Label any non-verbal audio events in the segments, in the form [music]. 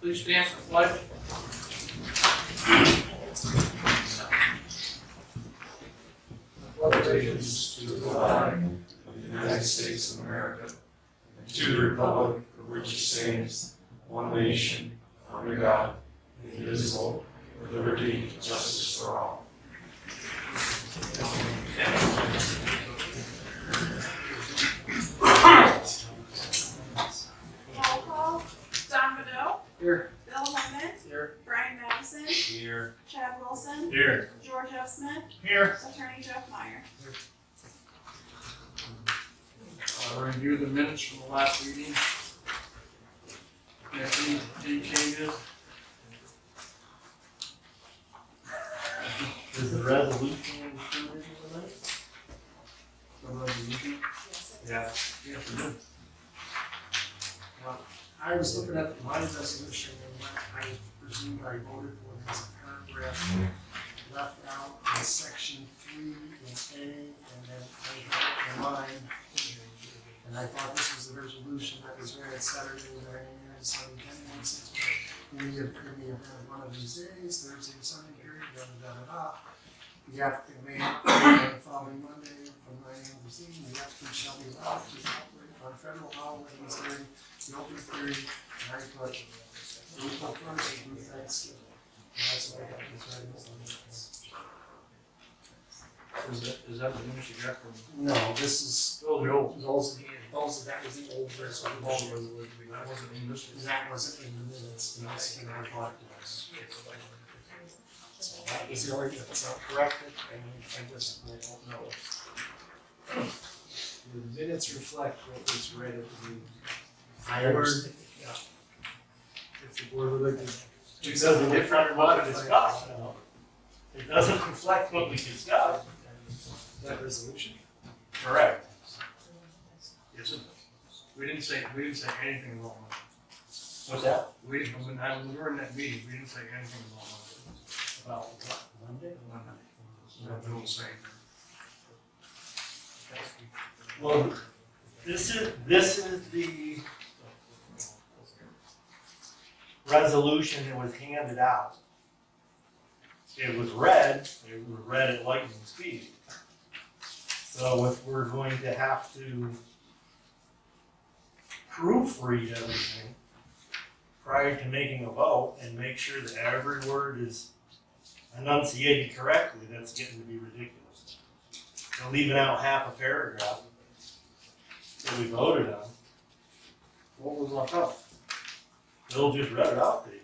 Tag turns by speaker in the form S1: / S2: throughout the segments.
S1: Please stand for the pledge.
S2: allegiance to the flag of the United States of America, and to the republic for which it stands, one nation, under God, indivisible, with liberty and justice for all.
S3: Roll call, Don Riddell.
S1: Here.
S3: Bill Holman.
S1: Here.
S3: Brian Madison.
S2: Here.
S3: Chad Wilson.
S2: Here.
S3: George F. Smith.
S2: Here.
S3: Attorney Jeff Meyer.
S1: Uh, review the minutes from the last meeting. Any, any changes?
S4: Is the resolution included in that?
S1: The resolution?
S4: Yeah.
S1: Yes, we do. I was looking at my resolution and I presume I voted for this paragraph left out in section three and A and then I had in mind. And I thought this was the resolution that was read Saturday, Saturday, Sunday, Monday, six, we have, we have had one of these days, Thursday, Sunday, period, da, da, da, da. The applicant may, on the following Monday, from nine AM to noon, the applicant shall be allowed to operate on federal holidays during the open period, and I put, we put first through Thanksgiving. And that's what I got this right this
S2: Is that, is that the news you got from?
S1: No, this is,
S2: Oh, the old.
S1: those, those, that was the old resolution,
S2: That wasn't in this.
S1: and that wasn't in the minutes, and that's, and I thought it was. So that was the only thing that's not corrected, and I just, I don't know.
S4: The minutes reflect what was read at the meeting.
S1: Fireworks. Yeah.
S4: If the board would like to.
S5: It doesn't reflect what we discussed. It doesn't reflect what we discussed.
S4: That resolution?
S5: Correct.
S2: Yes, it does. We didn't say, we didn't say anything wrong. with it.
S5: What's that?
S2: We, when I, when we were in that meeting, we didn't say anything wrong. with it.
S4: About what, Monday?
S2: One night. So we don't say.
S5: Well, this is, this is the resolution that was handed out. It was read, it was read at lightning speed. So if we're going to have to proofread everything prior to making a vote and make sure that every word is enunciated correctly, that's getting to be ridiculous. And leaving out half a paragraph that we voted on.
S1: What was left out?
S5: Bill just read it out to you.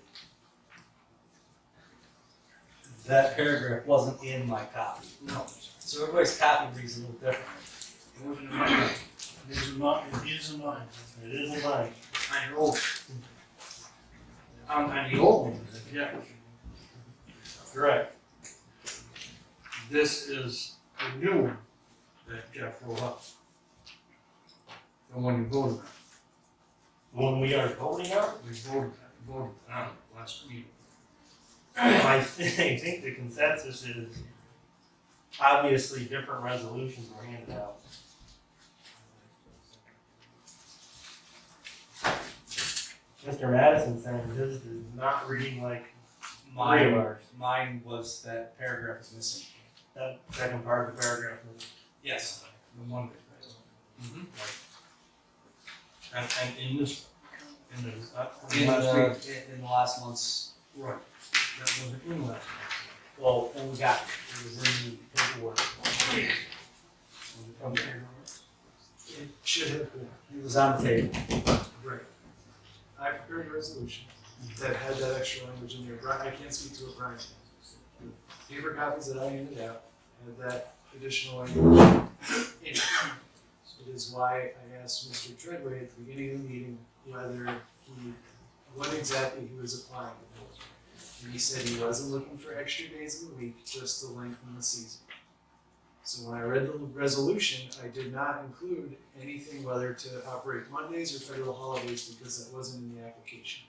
S5: That paragraph wasn't in my copy,
S1: No.
S5: so everybody's copy reads a little different.
S1: It wasn't in mine. It is in mine, it is in mine.
S5: It isn't mine.
S1: On your old. On, on the old one, yeah.
S5: Correct.
S2: This is the new one that Jeff rolled up. The one you voted on.
S5: When we are voting out,
S2: We voted, voted on it last meeting.
S5: [coughs] I think, I think the consensus is obviously different resolutions were handed out. Mr. Madison saying this is not reading like three of
S6: Mine,
S5: ours.
S6: mine was that paragraph is missing.
S5: That second part of the paragraph.
S6: Yes.
S2: The one And, and in this, in the, uh,
S6: In
S2: last
S6: the,
S2: week.
S6: in- in the last month's,
S2: Right. That wasn't in last
S5: Well, when we got, it was in the paperwork.
S2: week. Was it in
S4: It should have been.
S5: It was on the table.
S4: Right. I prepared a resolution that had that extra language in there. Bri- I can't speak to it, Brian. can. The Paper copies that I handed out had that additional language. in It It is why I asked Mr. Treadway at the beginning of the meeting whether he, what exactly he was applying for. And he said he wasn't looking for extra days in the week, just to lengthen the season. So when I read the resolution, I did not include anything whether to operate Mondays or federal holidays because that wasn't in the application.